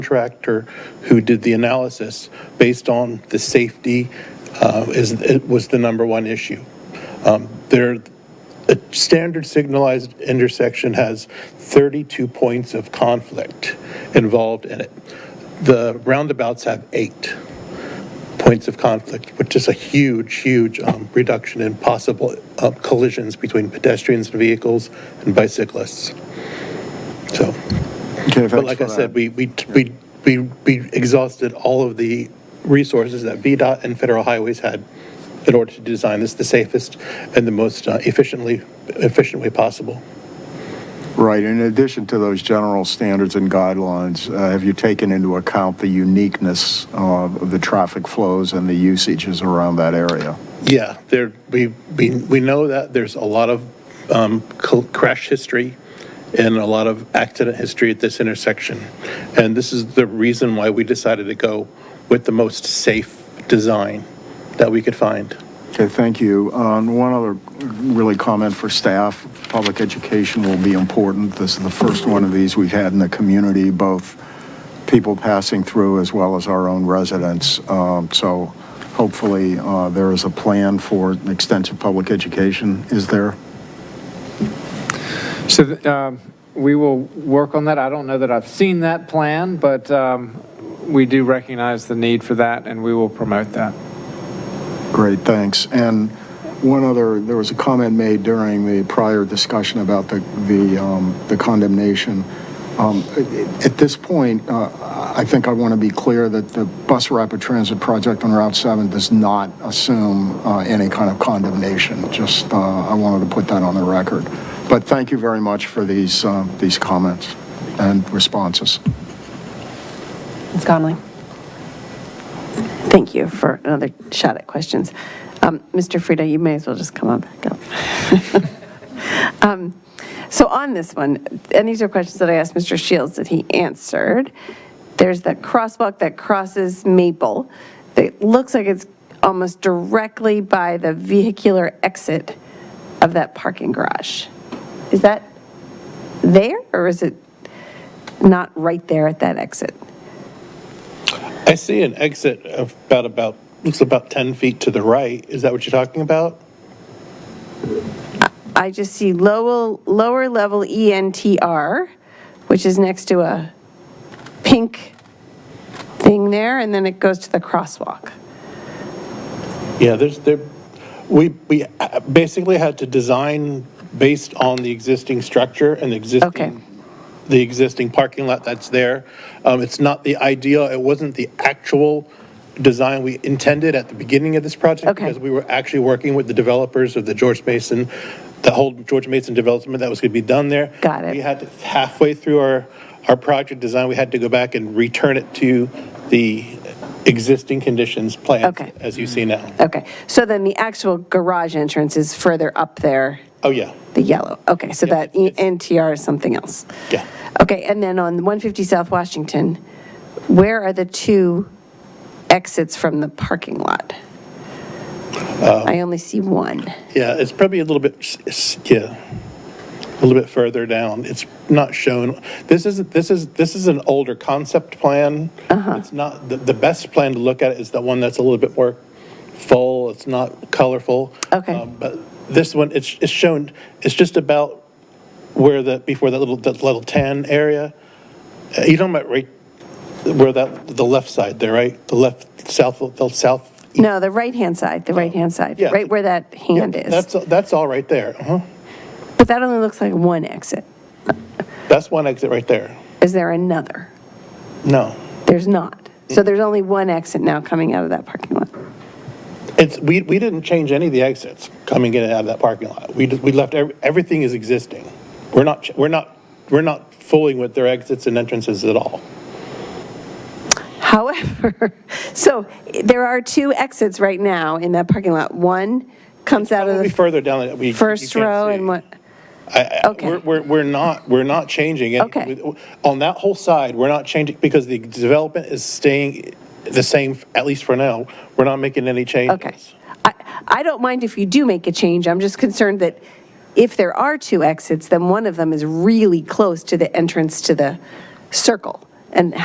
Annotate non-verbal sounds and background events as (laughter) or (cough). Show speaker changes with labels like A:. A: contractor who did the analysis based on the safety uh, is, it was the number one issue. Um, There, a standard signalized intersection has 32 points of conflict involved in it. The roundabouts have eight points of conflict, which is a huge, huge um, reduction in possible uh, collisions between pedestrians and vehicles and bicyclists. So.
B: Okay,
A: But like I said, we, we, we, we we exhausted all of the resources that VDOT and federal highways had in order to design this the safest and the most uh, efficiently, efficient way possible.
B: Right, in addition to those general standards and guidelines, uh, have you taken into account the uniqueness of the traffic flows and the usages around that area?
A: Yeah, there, we, we, we know that there's a lot of um, cl- crash history and a lot of accident history at this intersection. And this is the reason why we decided to go with the most safe design that we could find.
B: Okay, thank you. Uh, and One other really comment for staff, public education will be important. This is the first one of these we've had in the community, both people passing through as well as our own residents. Um, So hopefully, uh, there is a plan for extensive public education, is there?
C: So th- um, we will work on that. I don't know that I've seen that plan, but um, we do recognize the need for that, and we will promote that.
B: Great, thanks. And one other, there was a comment made during the prior discussion about the, the um, the condemnation. Um, At this point, uh, I think I want to be clear that the Bus Rapid Transit project on Route 7 does not assume uh, any kind of condemnation. Just, uh, I wanted to put that on the record. But thank you very much for these, um, these comments and responses.
D: Ms. Conley? Thank you for another shot at questions. Um, Mr. Frida, you may as well just come on back up. (laughs) Um, So on this one, and these are questions that I asked Mr. Shields that he answered. There's that crosswalk that crosses Maple that looks like it's almost directly by the vehicular exit of that parking garage. Is that there, or is it not right there at that exit?
A: I see an exit of about, about, looks about 10 feet to the right. Is that what you're talking about?
D: I just see lower, lower level E ENTR, which is next to a pink thing there, and then it goes to the crosswalk.
A: Yeah, there's, there, we, we uh, basically had to design based on the existing structure and the
D: Okay.
A: existing, the existing parking lot that's there. Um, It's not the ideal, it wasn't the actual design we intended at the beginning of this project.
D: Okay.
A: Because we were actually working with the developers of the George Mason, the whole George Mason development that was going to be done there.
D: Got it.
A: We had to halfway through our, our project design, we had to go back and return it to the existing conditions plans.
D: Okay.
A: As you see now.
D: Okay, so then the actual garage entrance is further up there,
A: Oh, yeah,
D: the yellow. Okay, so
A: Yeah,
D: that E
A: it's-
D: ENTR is something else.
A: yeah.
D: Okay, and then on 150 South Washington, where are the two exits from the parking lot?
A: Um,
D: I only see one.
A: Yeah, it's probably a little bit, it's- yeah, a little bit further down. It's not shown, this isn't, this is, this is an older concept plan.
D: Uh-huh.
A: It's not, the, the best plan to look at is the one that's a little bit more full, it's not colorful.
D: Okay.
A: Um, But this one, it's, it's shown, it's just about where the, before that little, that little tan area. Uh, You're talking about right, where that, the left side there, right? The left, south, the south.
D: No, the right-hand side, the right-hand side,
A: Yeah.
D: right where that hand
A: That's,
D: is.
A: that's all right there, uh-huh.
D: But that only looks like one exit.
A: That's one exit right there.
D: Is there another?
A: No.
D: There's not. So there's only one exit now coming out of that parking lot. (laughs)
A: It's, we, we didn't change any of the exits coming in and out of that parking lot. We, just- we left, every- everything is existing. We're not, ch- we're not, we're not fooling with their exits and entrances at all.
D: However, so there are two exits right now in that parking lot. One comes out of
A: Probably
D: the
A: further down that we. you
D: first
A: can't
D: row
A: see.
D: and one,
A: I- I-
D: okay.
A: We're, we're, we're not, we're not changing. any-
D: Okay.
A: with- On that whole side, we're not changing, because the development is staying the same, at least for now. We're not making any changes.
D: okay. I, I don't mind if you do make a change. I'm just concerned that if there are two exits, then one of them is really close to the entrance to the circle. And